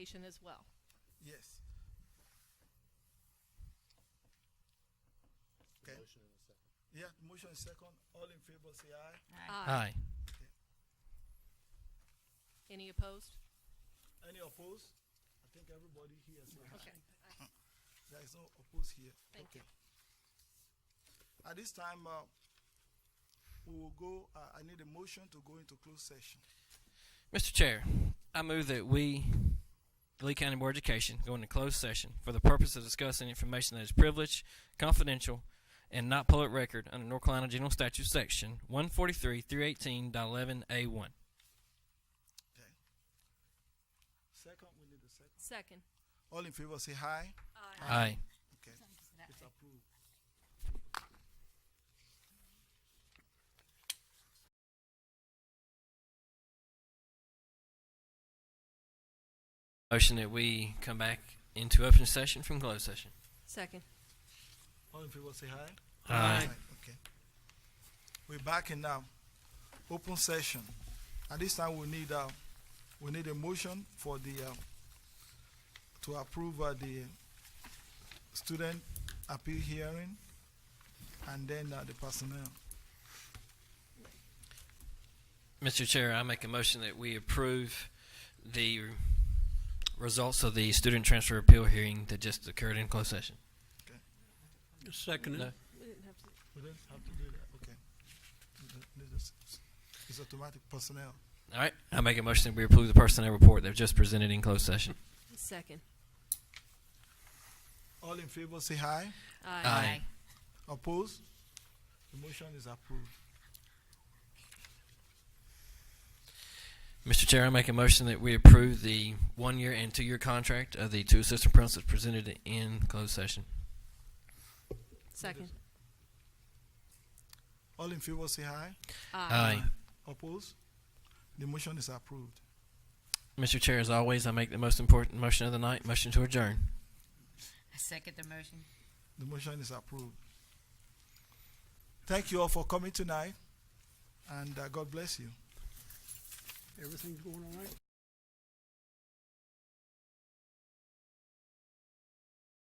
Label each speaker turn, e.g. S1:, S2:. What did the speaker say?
S1: presentation as well.
S2: Yes. Okay.
S3: Motion and a second.
S2: Yeah, motion is second. All in favor say aye.
S4: Aye.
S1: Any opposed?
S2: Any opposed? I think everybody here say aye.
S1: Okay.
S2: There is no opposed here.
S1: Thank you.
S2: At this time, uh, we will go, uh, I need a motion to go into closed session.
S4: Mr. Chair, I move that we, the Lee County Board of Education, go into closed session for the purpose of discussing information that is privileged, confidential, and not public record under North Carolina General Statute Section one forty three three eighteen eleven A one.
S2: Okay. Second, we need a second.
S1: Second.
S2: All in favor say aye.
S4: Aye.
S2: Okay. It's approved.
S4: Motion that we come back into open session from closed session.
S1: Second.
S2: All in favor say aye.
S4: Aye.
S2: Okay. We're back in now. Open session. At this time, we need, uh, we need a motion for the, uh, to approve, uh, the student appeal hearing and then, uh, the personnel.
S4: Mr. Chair, I make a motion that we approve the results of the student transfer appeal hearing that just occurred in closed session.
S5: Second.
S4: No.
S5: it.
S2: We don't have to do that, okay. This is- It's automatic personnel.
S4: All right. I make a motion that we approve the personnel report that just presented in closed session.
S1: Second.
S2: All in favor, say aye.
S4: Aye.
S2: Opposed? The motion is approved.
S4: Mr. Chair, I make a motion that we approve the one-year and two-year contract of the two assistant principals presented in closed session.
S1: Second.
S2: All in favor, say aye.
S4: Aye.
S2: Opposed? The motion is approved.
S4: Mr. Chair, as always, I make the most important motion of the night, motion to adjourn.
S6: I second the motion.
S2: The motion is approved. Thank you all for coming tonight, and uh, God bless you.
S5: Everything's going all right?